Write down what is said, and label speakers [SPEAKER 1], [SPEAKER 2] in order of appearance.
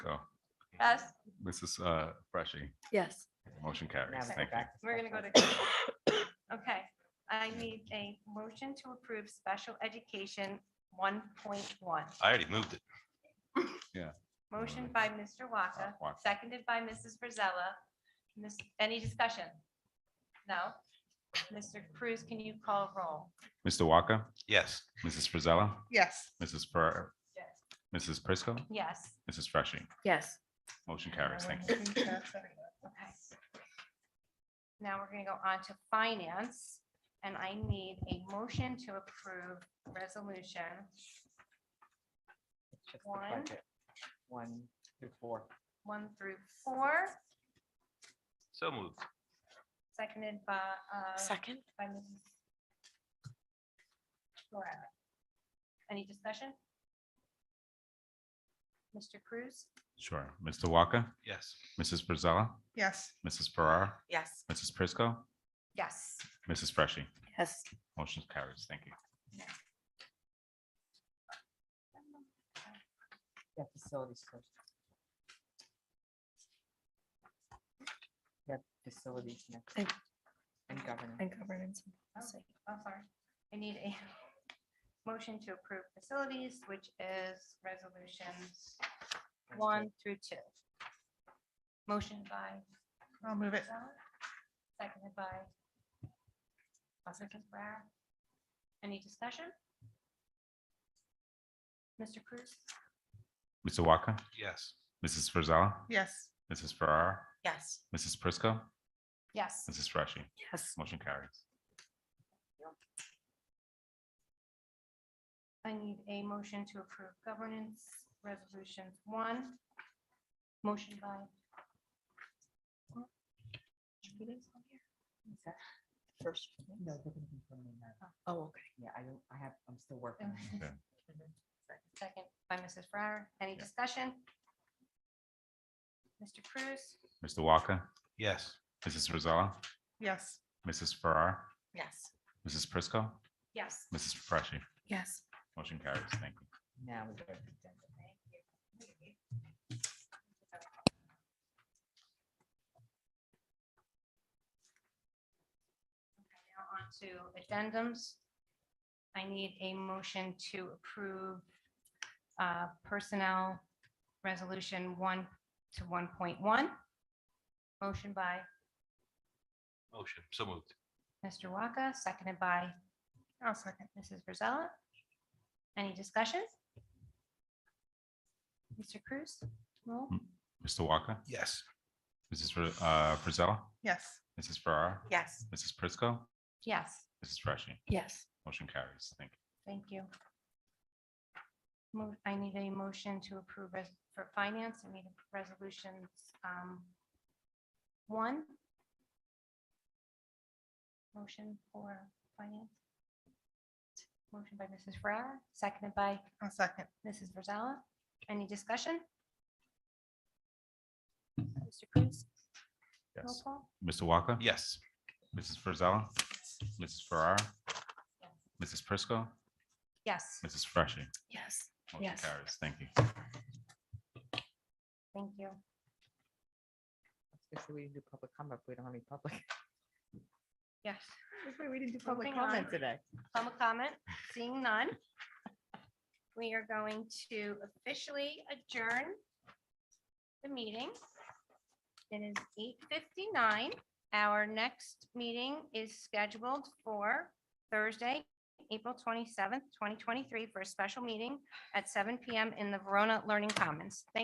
[SPEAKER 1] Yes,
[SPEAKER 2] Mrs. uh, Freshy,
[SPEAKER 3] Yes.
[SPEAKER 2] motion carries. Thank you.
[SPEAKER 1] we're gonna go to. Okay, I need a motion to approve special education one point one.
[SPEAKER 4] I already moved it.
[SPEAKER 1] Motion by Mr. Waka,
[SPEAKER 2] Waka.
[SPEAKER 1] seconded by Mrs. Brazella. Miss, any discussion? No? Mr. Cruz, can you call roll?
[SPEAKER 2] Mr. Walker,
[SPEAKER 4] Yes.
[SPEAKER 2] Mrs. Frizella,
[SPEAKER 5] Yes.
[SPEAKER 2] Mrs. Per, Mrs. Prisco,
[SPEAKER 1] Yes.
[SPEAKER 2] Mrs. Freshy,
[SPEAKER 3] Yes.
[SPEAKER 2] motion carries. Thank you.
[SPEAKER 1] Okay. Now we're gonna go on to finance, and I need a motion to approve resolution. One.
[SPEAKER 6] One through four.
[SPEAKER 1] One through four,
[SPEAKER 4] So moved.
[SPEAKER 1] seconded by, uh,
[SPEAKER 3] Second?
[SPEAKER 1] by Mrs. Ferrara. Any discussion? Mr. Cruz?
[SPEAKER 2] Sure. Mr. Walker,
[SPEAKER 4] Yes.
[SPEAKER 2] Mrs. Frizella,
[SPEAKER 5] Yes.
[SPEAKER 2] Mrs. Farrar,
[SPEAKER 3] Yes.
[SPEAKER 2] Mrs. Prisco,
[SPEAKER 1] Yes.
[SPEAKER 2] Mrs. Freshy,
[SPEAKER 3] Yes.
[SPEAKER 2] motion carries. Thank you.
[SPEAKER 6] Yeah, facilities first. Yeah, facilities next.
[SPEAKER 3] And-
[SPEAKER 6] And governance.
[SPEAKER 3] And governance.
[SPEAKER 1] Oh, I'm sorry. I need a motion to approve facilities, which is resolutions one through two. Motion by.
[SPEAKER 5] I'll move it.
[SPEAKER 1] Gonzalez, Seconded by. Councilor Campbell. Any discussion? Mr. Cruz?
[SPEAKER 2] Mr. Walker,
[SPEAKER 4] Yes.
[SPEAKER 2] Mrs. Frizella,
[SPEAKER 5] Yes.
[SPEAKER 2] Mrs. Farrar,
[SPEAKER 3] Yes.
[SPEAKER 2] Mrs. Prisco,
[SPEAKER 1] Yes.
[SPEAKER 2] Mrs. Freshy,
[SPEAKER 3] Yes.
[SPEAKER 2] motion carries.
[SPEAKER 1] I need a motion to approve governance resolutions one. Motion by.
[SPEAKER 6] First. No, they're gonna be permanent now.
[SPEAKER 3] Oh, okay.
[SPEAKER 6] Yeah, I don't, I have, I'm still working. on it.
[SPEAKER 2] Yeah.
[SPEAKER 1] Second by Mrs. Brower. Any discussion? Mr. Cruz?
[SPEAKER 2] Mr. Walker,
[SPEAKER 4] Yes.
[SPEAKER 2] Mrs. Frizella,
[SPEAKER 5] Yes.
[SPEAKER 2] Mrs. Farrar,
[SPEAKER 3] Yes.
[SPEAKER 2] Mrs. Prisco,
[SPEAKER 1] Yes.
[SPEAKER 2] Mrs. Freshy,
[SPEAKER 3] Yes.
[SPEAKER 2] motion carries. Thank you.
[SPEAKER 6] Now we go to addendum.
[SPEAKER 1] Now on to addendums. I need a motion to approve uh, Personnel Resolution 1 to 1.1. Motion by
[SPEAKER 4] Motion. So moved.
[SPEAKER 1] Mr. Waka, seconded by
[SPEAKER 5] I'll second.
[SPEAKER 1] Mrs. Brazella. Any discussion? Mr. Cruz? Roll.
[SPEAKER 2] Mr. Walker,
[SPEAKER 4] Yes.
[SPEAKER 2] Mrs. Fri- uh, Frizella,
[SPEAKER 5] Yes.
[SPEAKER 2] Mrs. Farrar,
[SPEAKER 3] Yes.
[SPEAKER 2] Mrs. Prisco,
[SPEAKER 1] Yes,
[SPEAKER 2] Mrs. Freshy,
[SPEAKER 3] Yes.
[SPEAKER 2] motion carries. Thank you.
[SPEAKER 1] thank you. Mo- I need a motion to approve res- for finance, I need resolutions. um, One. Motion for finance. Motion by Mrs. Ferrara, seconded by
[SPEAKER 5] I'll second.
[SPEAKER 1] Mrs. Brazella. Any discussion? Mr. Cruz? roll
[SPEAKER 2] Yes.
[SPEAKER 1] call?
[SPEAKER 2] Mr. Walker?
[SPEAKER 4] Yes.
[SPEAKER 2] Mrs. Frizella? Mrs. Farrar? Mrs. Prisco?
[SPEAKER 1] Yes.
[SPEAKER 2] Mrs. Freshy?
[SPEAKER 3] Yes.
[SPEAKER 2] Motion
[SPEAKER 3] Yes.
[SPEAKER 2] carries. Thank you.
[SPEAKER 1] Thank you.
[SPEAKER 6] Especially we didn't do public comment. We don't have any public.
[SPEAKER 1] Yes.
[SPEAKER 6] That's why we didn't do
[SPEAKER 1] Moving on.
[SPEAKER 6] today.
[SPEAKER 1] Public comment, seeing none. We are going to officially adjourn the meeting. It is eight fifty-nine. Our next meeting is scheduled for Thursday, April twenty-seventh, twenty twenty-three, for a special meeting at seven PM in the Verona Learning Commons. Thank